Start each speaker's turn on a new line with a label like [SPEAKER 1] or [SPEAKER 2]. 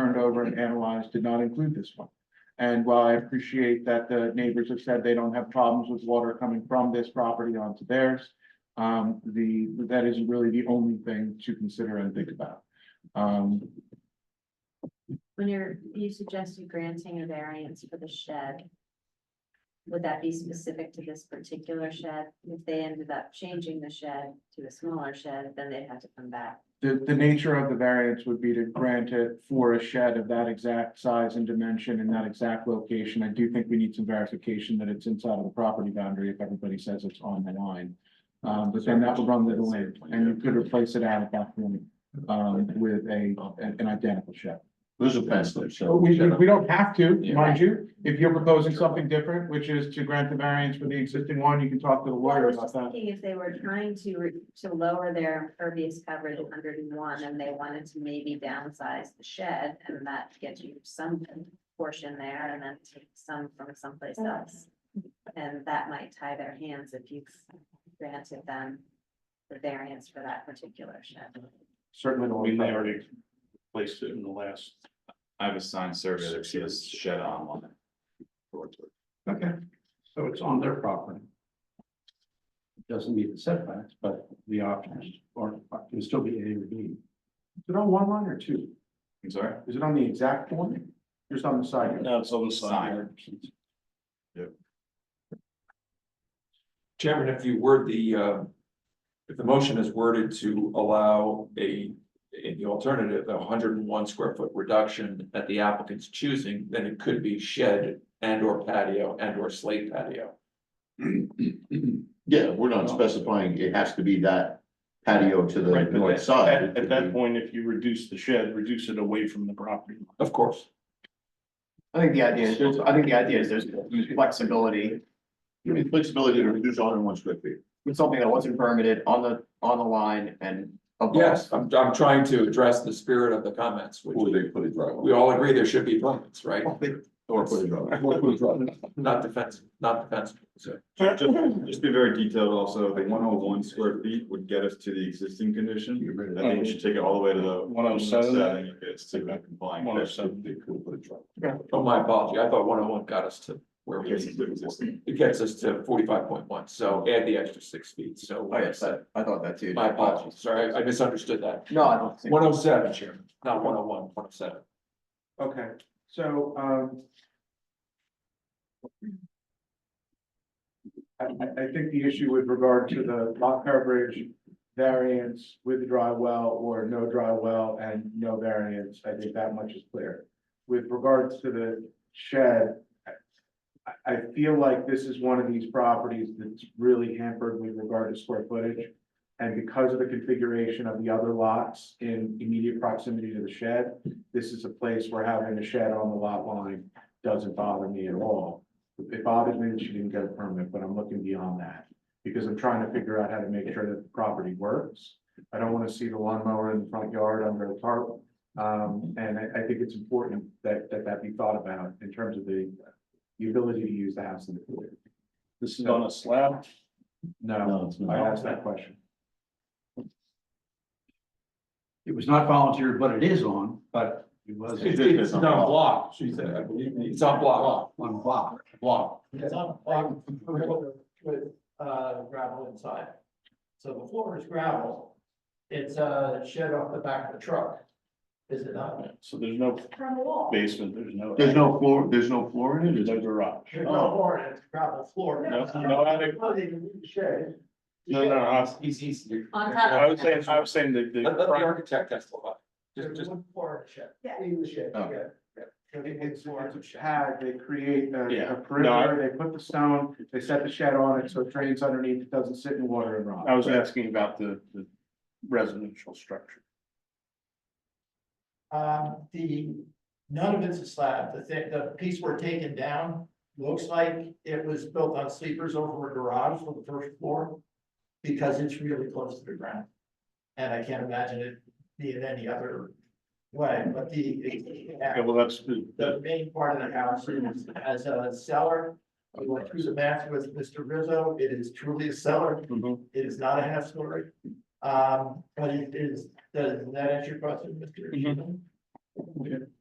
[SPEAKER 1] over and analyzed did not include this one. And while I appreciate that the neighbors have said they don't have problems with water coming from this property onto theirs, um, the, that is really the only thing to consider and think about. Um,
[SPEAKER 2] When you're, you suggested granting a variance for the shed. Would that be specific to this particular shed? If they ended up changing the shed to a smaller shed, then they'd have to come back.
[SPEAKER 1] the, the nature of the variance would be to grant it for a shed of that exact size and dimension in that exact location. I do think we need some verification that it's inside of the property boundary if everybody says it's on the line. Um, but then that would run the delay and you could replace it out at that point, um, with a, an an identical shed.
[SPEAKER 3] There's a fence there, so.
[SPEAKER 1] Well, We, we we don't have to,
[SPEAKER 3] Yeah.
[SPEAKER 1] mind you, if you're proposing something different, which is to grant the variance for the existing one, you can talk to the
[SPEAKER 2] Well, I
[SPEAKER 1] lawyer
[SPEAKER 2] was
[SPEAKER 1] about
[SPEAKER 2] just
[SPEAKER 1] that.
[SPEAKER 2] thinking if they were trying to, re- to lower their impervious coverage to hundred and one, and they wanted to maybe downsize the shed, and that gets you some portion there, and then take some from someplace else. And that might tie their hands if you've granted them the variance for that particular shed.
[SPEAKER 1] Certainly. the
[SPEAKER 4] I mean,
[SPEAKER 1] lawyer.
[SPEAKER 4] they already placed it in the last.
[SPEAKER 5] I have a signed survey that says shed on one.
[SPEAKER 4] Okay. So it's on their property. Doesn't meet the setbacks, but the options or it can still be A or B.
[SPEAKER 1] Is it on one line or two?
[SPEAKER 5] I'm sorry?
[SPEAKER 1] Is it on the exact one? Just on the side?
[SPEAKER 4] No, it's on the
[SPEAKER 5] side.
[SPEAKER 6] Chairman, if you word the, uh, if the motion is worded to allow a, in the alternative, a hundred and one square foot reduction at the applicant's choosing, then it could be shed and or patio and or slate patio.
[SPEAKER 3] Yeah, we're not specifying it has to be that patio to the
[SPEAKER 4] Right, but
[SPEAKER 3] north
[SPEAKER 4] that-
[SPEAKER 3] side.
[SPEAKER 4] at,
[SPEAKER 3] It could
[SPEAKER 4] at that
[SPEAKER 3] be-
[SPEAKER 4] point, if you reduce the shed, reduce it away from the property. line.
[SPEAKER 6] Of course,
[SPEAKER 7] I think the idea is, there's- I think the idea is there's flexibility,
[SPEAKER 3] Give me flexibility to reduce all in one square feet.
[SPEAKER 7] with something that wasn't permitted on the, on the line and. above.
[SPEAKER 6] yes, I'm, I'm trying to address the spirit of the comments,
[SPEAKER 3] Or
[SPEAKER 6] which
[SPEAKER 3] they put a driveway.
[SPEAKER 6] we all agree there should be limits, right?
[SPEAKER 3] Or put a driveway.
[SPEAKER 6] Not defensive, not defensive, so.
[SPEAKER 5] Just just be very detailed also, the one oh one square feet would get us to the existing condition.
[SPEAKER 3] Get rid of
[SPEAKER 5] I
[SPEAKER 3] that.
[SPEAKER 5] think we should take it all the way to the.
[SPEAKER 4] 107.
[SPEAKER 5] if It's to the complying.
[SPEAKER 4] 107.
[SPEAKER 3] They could put a driveway.
[SPEAKER 6] Oh, my apology, I thought one oh one got us to where we.
[SPEAKER 5] Gets us to existing.
[SPEAKER 6] It gets us to forty-five point one, so add the extra six feet, so.
[SPEAKER 7] Oh, yes, I, I thought that too.
[SPEAKER 6] My apologies, sorry, I misunderstood that.
[SPEAKER 7] No, I don't think.
[SPEAKER 6] One oh seven, Chairman, not one oh one, one oh seven.
[SPEAKER 1] Okay, so, um. I, I, I think the issue with regard to the lot coverage variance with dry well or no dry well and no variance, I think that much is clear. With regards to the shed, I, I feel like this is one of these properties that's really hampered with regard to square footage. And because of the configuration of the other lots in immediate proximity to the shed, this is a place where having a shed on the lot line doesn't bother me at all. It bothers me that she didn't get a permit, but I'm looking beyond that, because I'm trying to figure out how to make sure that the property works. I don't wanna see the lawnmower in the front yard under a tarp, um, and I, I think it's important that, that that be thought about in terms of the the ability to use the house in the future.
[SPEAKER 4] This is on a slab.
[SPEAKER 1] No,
[SPEAKER 3] it's
[SPEAKER 1] I asked that question.
[SPEAKER 4] It was not volunteered, but it is on, but it was.
[SPEAKER 3] It's- it's on
[SPEAKER 6] block, she said, I believe, me. it's on block,
[SPEAKER 4] On block.
[SPEAKER 6] block.
[SPEAKER 8] It's on a block with, with, uh, gravel inside. So the floor is gravel. It's a shed off the back of the truck. Is it not?
[SPEAKER 4] So there's no
[SPEAKER 8] From the wall.
[SPEAKER 4] basement, there's no.
[SPEAKER 3] There's no floor, there's no floor in it,
[SPEAKER 4] There's
[SPEAKER 3] is
[SPEAKER 4] no
[SPEAKER 3] there?
[SPEAKER 4] garage.
[SPEAKER 8] There's no floor, in it, it's gravel floor.
[SPEAKER 4] No, no attic.
[SPEAKER 8] Oh, they didn't need the shed.
[SPEAKER 4] No, no, I was-
[SPEAKER 6] He's easy.
[SPEAKER 2] On top of
[SPEAKER 4] I was saying, I was saying that the.
[SPEAKER 6] Let, let the architect testify. Just,
[SPEAKER 8] There's
[SPEAKER 6] just,
[SPEAKER 8] one floor in the shed. Yeah. In the shed,
[SPEAKER 3] Oh.
[SPEAKER 8] yeah. So
[SPEAKER 1] It-
[SPEAKER 8] one
[SPEAKER 1] It's,
[SPEAKER 8] floor in
[SPEAKER 1] it's
[SPEAKER 8] the
[SPEAKER 1] a
[SPEAKER 8] shed.
[SPEAKER 1] pad, they create
[SPEAKER 4] Yeah.
[SPEAKER 1] a- a
[SPEAKER 4] No,
[SPEAKER 1] perimeter, they put the stone, they set the shed on it, so it drains underneath, it doesn't sit in water and rot.
[SPEAKER 4] I was asking about the, the residential structure.
[SPEAKER 8] Um, the, none of it's a slab, the thing, the piece we're taking down looks like it was built on sleepers over a garage for the first floor. Because it's really close to the ground. And I can't imagine it being any other way, but the.
[SPEAKER 4] Okay, well, that's, the-
[SPEAKER 8] The main part of the house is as a cellar, we went through the math with Mr. Rizzo, it is truly a cellar,
[SPEAKER 4] Mhm.
[SPEAKER 8] it is not a half story. Um, but it is, does that answer your question, Mr. Sheehan?